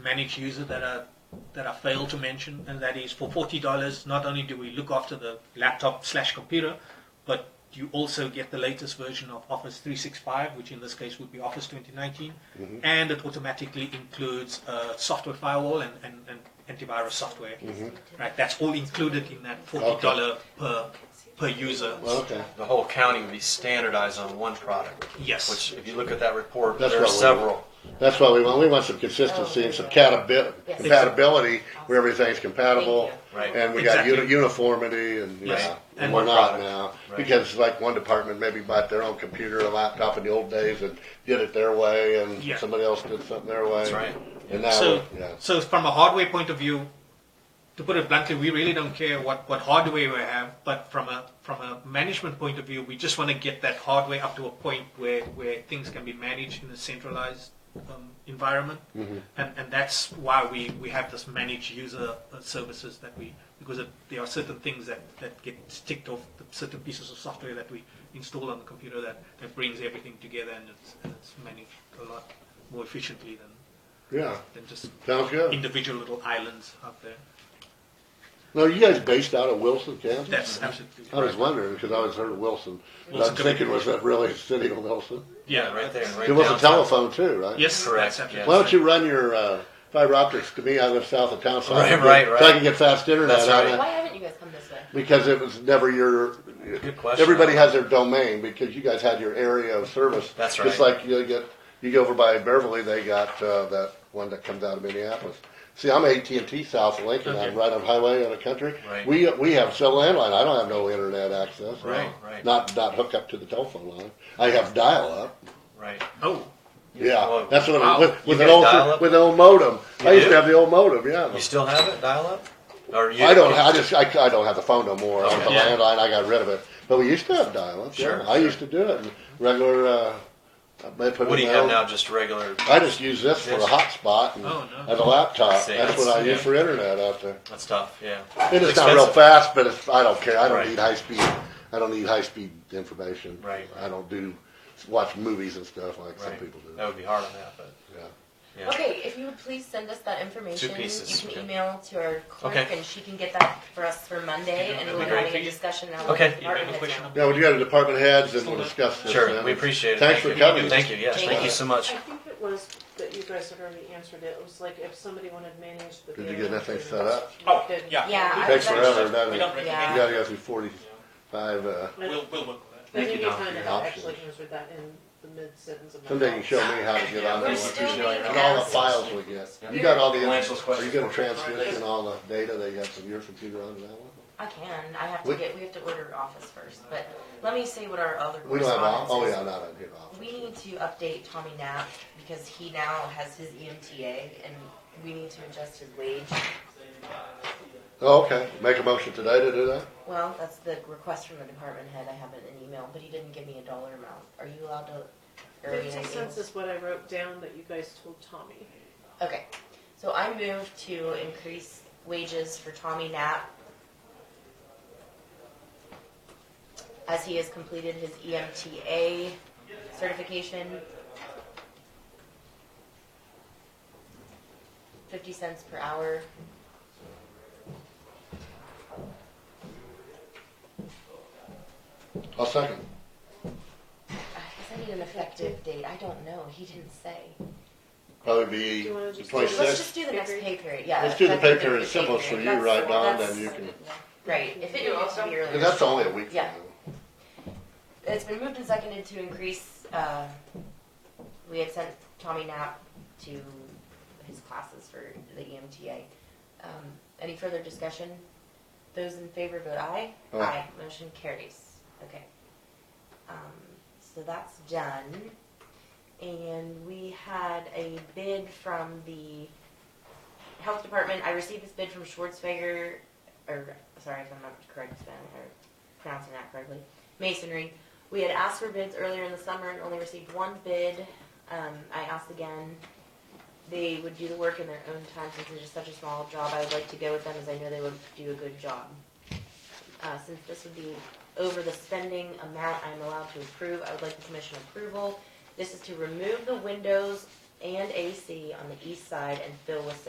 managed user that I that I failed to mention, and that is for forty dollars, not only do we look after the laptop slash computer, but you also get the latest version of Office 365, which in this case would be Office 2019, and it automatically includes uh, software firewall and, and, and antivirus software. Right, that's all included in that forty dollar per per user. Well, okay. The whole county would be standardized on one product. Yes. Which, if you look at that report, That's there are what we- several. That's what we want. We want some consistency and some catabi- Yes. compatibility where everything's compatible. Thank you. Right. And we got Exactly. uni- uniformity and, you Yes. know, And and we're one not product. now. Right. Because like one department maybe bought their own computer or laptop in the old days and did it their way and Yeah. somebody else did something their way. That's right. And now, So, yeah. so from a hardware point of view, to put it bluntly, we really don't care what, what hardware we have, but from a from a management point of view, we just want to get that hardware up to a point where, where things can be managed in a centralized um, environment, Mm-hmm. and and that's why we, we have this managed user uh, services that we because it, there are certain things that, that get ticked off, the certain pieces of software that we install on the computer that, that brings everything together and it's, and it's managed a lot more efficiently than Yeah. than just Sounds good. individual little islands out there. Now, you guys based out of Wilson, Kansas? That's absolutely I was wondering because I always heard of Wilson. And I Wilson was thinking, Community. was that really the city of Wilson? Yeah, Right there. Right There was a downtown. telephone too, right? Yes, Correct, that's absolutely. Why don't you run your uh, fiber optics to me? I live south of town, so, I, Right, can get, right, right. so I can get fast internet. That's out of right. it. Why haven't you guys come this way? Because it was never your. Good question. Everybody has their domain because you guys had your area of service. That's Just right. like you get, you go over by Beverly, they got uh, that one that comes out of Minneapolis. See, I'm AT and T South of Lincoln. I'm Okay. right on highway in the country. Right. We we have cell landline. I don't have no internet access. no. Right, right. Not not hook up to the telephone line. I have dial up. Right. Oh, Yeah, Well, that's what wow. it, with, You with got an old dial-up? with an old modem. I You used do? to have the old modem. Yeah, You still have it, dial up? Or you? I don't. I just I, I don't have the phone no more. I was a Okay. Yeah. landline. I got rid of it. But we used to have dial-up. Sure, yeah. I sure. used to do it. in Regular. Uh, I may put What in do you my have own- now? Just regular. I just use this for a Yes. hotspot and, Oh, no. and a laptop. See, that's what that's- I yeah. use for internet out there. That's tough. Yeah. And it's not real expensive. fast, but it's, I don't care. I don't Right. need high speed. I don't need high speed information. Right. I don't do watch movies and stuff like some Right. people do. That would be hard on that, but Yeah. yeah. Okay, if you would please send us that information, pieces, you okay. can email to our clerk Okay. and she can get that for us for Monday, and that'd we'll be be great. having a discussion now. Okay. with the department You have a question? heads Yeah, when you go to department heads, and we'll discuss this. Sure. then. We appreciate it. Thanks Thank for you. coming. Thank you. Yes. Thank Thank you. you so much. I think it was that you guys had already answered it. It was like if somebody wanted to manage the. Did you van get that thing and- set up? Oh, Did- yeah. Yeah, I Takes was forever, actually- doesn't we it? don't recommend Yeah. You gotta go through forty-five, uh, I We'll, we'll work with I think you Thank you, kind of Doc. actually answered that in the mid sentence of my. someday you can show me how to get on there. We're what still you do, being And all the asked. files we get. You got all the, Financial are you gonna questions. transmission all the data they got from your computer onto that one? I can, I have We- to get, we have to order office first, but let me see what our other We don't have, all- correspondence oh is. yeah, not on here, all. We need to update Tommy Knapp, because he now has his E EMTA, and we need to adjust his wage. Oh, okay, make a motion today to do that? Well, that's the request from the department head, I have it in email, but he didn't give me a dollar amount, are you allowed to? or are you Fifty gonna be- cents is what I wrote down that you guys told Tommy. Okay, so I move to increase wages for Tommy Knapp as he has completed his E EMTA certification. Fifty cents per hour. I'll second. I guess I need an effective date, I don't know, he didn't say. Probably Do be you wanna the just- Let's twenty-sixth. just do the next pay period, yeah. Let's do the pay effective period, pay simple, so period. you That's- write down, that's- then you can, Right, if it needs to be earlier. and that's only a week. Yeah. you know. It's been moved and seconded to increase, uh, we had sent Tommy Knapp to his classes for the E EMTA. Um, any further discussion? Those in favor vote aye. Aye. Motion carries. Okay. Um, so that's done. And we had a bid from the health department. I received this bid from Schwartzfeger, or, sorry if I'm not correct spelling or pronouncing that correctly, masonry. We had asked for bids earlier in the summer and only received one bid. Um, I asked again. They would do the work in their own time since it is such a small job. I would like to go with them as I know they would do a good job. Uh, since this would be over the spending amount I'm allowed to approve, I would like the commission approval. This is to remove the windows and AC on the east side and fill with